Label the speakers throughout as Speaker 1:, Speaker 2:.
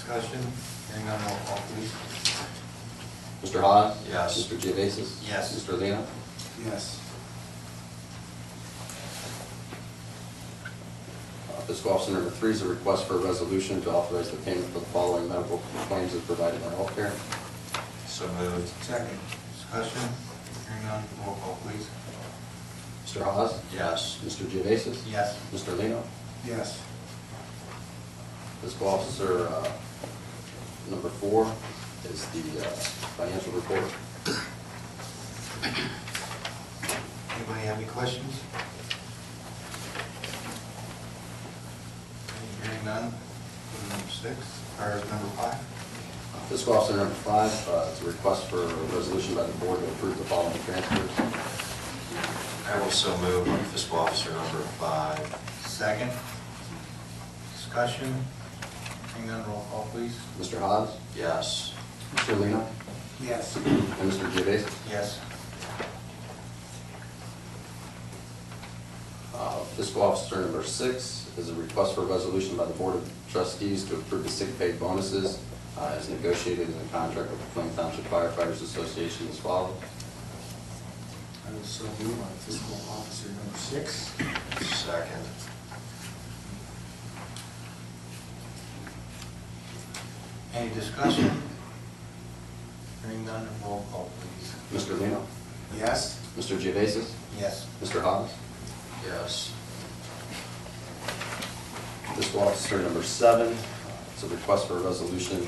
Speaker 1: Discussion, hearing on roll call, please.
Speaker 2: Mr. Hawes?
Speaker 1: Yes.
Speaker 2: Mr. Geovasis?
Speaker 1: Yes.
Speaker 2: Mr. Lino?
Speaker 1: Yes.
Speaker 2: Uh, Fiscal Officer number three is a request for a resolution to authorize the payment for the following medical claims as provided by healthcare.
Speaker 1: So moved. Second. Discussion, hearing on roll call, please.
Speaker 2: Mr. Hawes?
Speaker 1: Yes.
Speaker 2: Mr. Geovasis?
Speaker 1: Yes.
Speaker 2: Mr. Lino?
Speaker 1: Yes.
Speaker 2: Fiscal Officer uh, number four is the uh, financial report.
Speaker 1: Anybody have any questions? Hearing none, item number six, or number five?
Speaker 2: Fiscal Officer number five uh, is a request for a resolution by the board to approve the following transfers.
Speaker 3: I will so move on fiscal officer number five.
Speaker 1: Second. Discussion, hearing none, roll call, please.
Speaker 2: Mr. Hawes?
Speaker 3: Yes.
Speaker 2: Mr. Lino?
Speaker 1: Yes.
Speaker 2: And Mr. Geovasis?
Speaker 1: Yes.
Speaker 2: Uh, Fiscal Officer number six is a request for a resolution by the Board of Trustees to approve the sick pay bonuses uh, as negotiated in the contract with the Plain Township Firefighters Association as follows.
Speaker 4: I will so move on fiscal officer number six.
Speaker 3: Second.
Speaker 1: Any discussion? Hearing none, roll call, please.
Speaker 2: Mr. Lino?
Speaker 4: Yes.
Speaker 2: Mr. Geovasis?
Speaker 1: Yes.
Speaker 2: Mr. Hawes?
Speaker 3: Yes.
Speaker 2: Fiscal Officer number seven uh, is a request for a resolution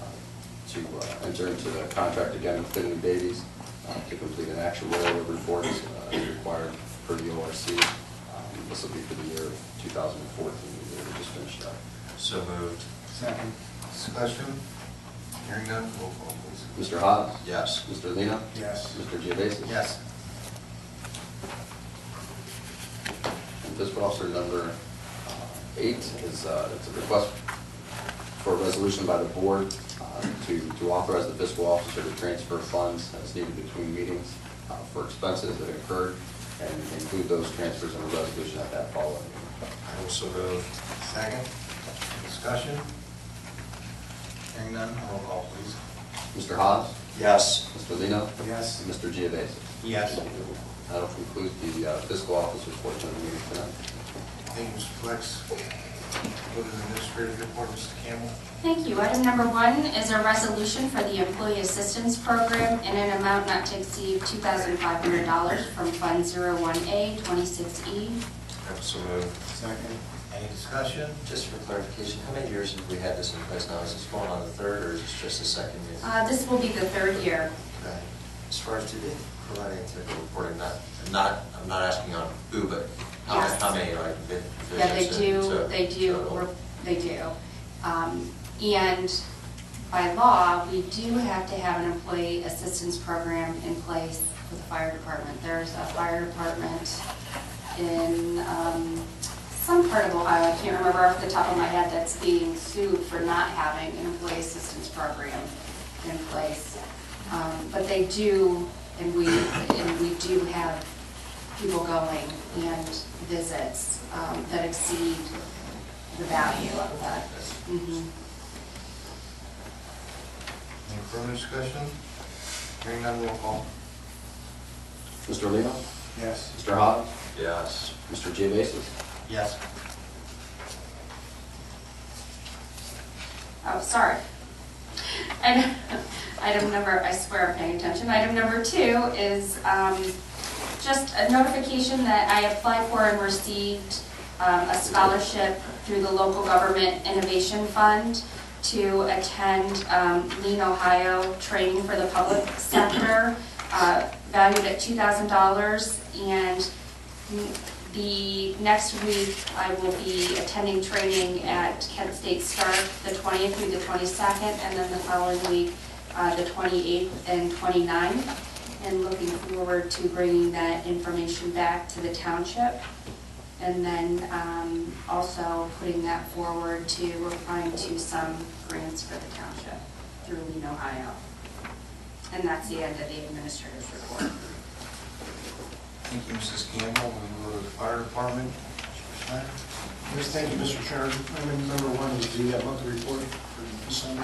Speaker 2: uh, to uh, enter into the contract again with Finley Babies uh, to complete an actuarial report uh, as required per the ORC. Um, This will be for the year 2014, the year we just finished up.
Speaker 3: So moved.
Speaker 4: Second.
Speaker 1: Discussion? Hearing none, roll call, please.
Speaker 2: Mr. Hawes?
Speaker 3: Yes.
Speaker 2: Mr. Lino?
Speaker 4: Yes.
Speaker 2: Mr. Geovasis?
Speaker 1: Yes.
Speaker 2: And fiscal officer number uh, eight is, uh, it's a request for a resolution by the board uh, to, to authorize the fiscal officer to transfer funds as needed between meetings uh, for expenses that incurred and include those transfers in a resolution at that following. meeting.
Speaker 3: I will so move.
Speaker 1: Second? Discussion? Hearing none, roll call, please.
Speaker 2: Mr. Hawes?
Speaker 3: Yes.
Speaker 2: Mr. Lino?
Speaker 4: Yes.
Speaker 2: And Mr. Geovasis?
Speaker 1: Yes.
Speaker 2: That'll conclude the uh, fiscal officer's portion of the meeting tonight.
Speaker 1: Thank you, Mr. Flex. Go to the administrative report, Mr. Campbell.
Speaker 5: Thank you. Item number one is a resolution for the Employee Assistance Program in an amount not to exceed $2,500 from Fund 01A, 26E.
Speaker 3: I will so move.
Speaker 4: Second.
Speaker 1: Any discussion?
Speaker 3: Just for clarification, how many years have we had this in place now? Is this going on the third or is this just the second year?
Speaker 5: Uh, This will be the third year.
Speaker 3: Okay. As far as today, providing technical reporting, not, I'm not, I'm not asking on who, but how,
Speaker 5: Yes.
Speaker 3: how many, like, vi-
Speaker 5: Yeah, they
Speaker 3: visits and
Speaker 5: do,
Speaker 3: so-
Speaker 5: they do,
Speaker 3: total?
Speaker 5: they do. Um, And by law, we do have to have an employee assistance program in place for the fire department. There's a fire department in um, some part of Ohio, I can't remember off the top of my head, that's being sued for not having an employee assistance program in place. Um, But they do, and we, and we do have people going and visits um, that exceed the value of that. Mhm.
Speaker 1: Any further discussion? Hearing none, roll call.
Speaker 2: Mr. Lino?
Speaker 4: Yes.
Speaker 2: Mr. Hawes?
Speaker 3: Yes.
Speaker 2: Mr. Geovasis?
Speaker 1: Yes.
Speaker 5: Oh, sorry. Item item number, I swear I'm paying attention. Item number two is um, just a notification that I applied for and received um, a scholarship through the Local Government Innovation Fund to attend um, Lean Ohio Training for the Public Sector, uh, valued at $2,000. And the next week, I will be attending training at Kent State Stark, the 20th through the 22nd, and then the following week, uh, the 28th and 29th. And looking forward to bringing that information back to the township. And then um, also putting that forward to applying to some grants for the township through Lean, Ohio. And that's the end of the administrator's report.
Speaker 1: Thank you, Mrs. Campbell. We go to the fire department. Mr. Snyder?
Speaker 4: Yes, thank you, Mr. Chairman. Item number one is the uh, monthly report for the consent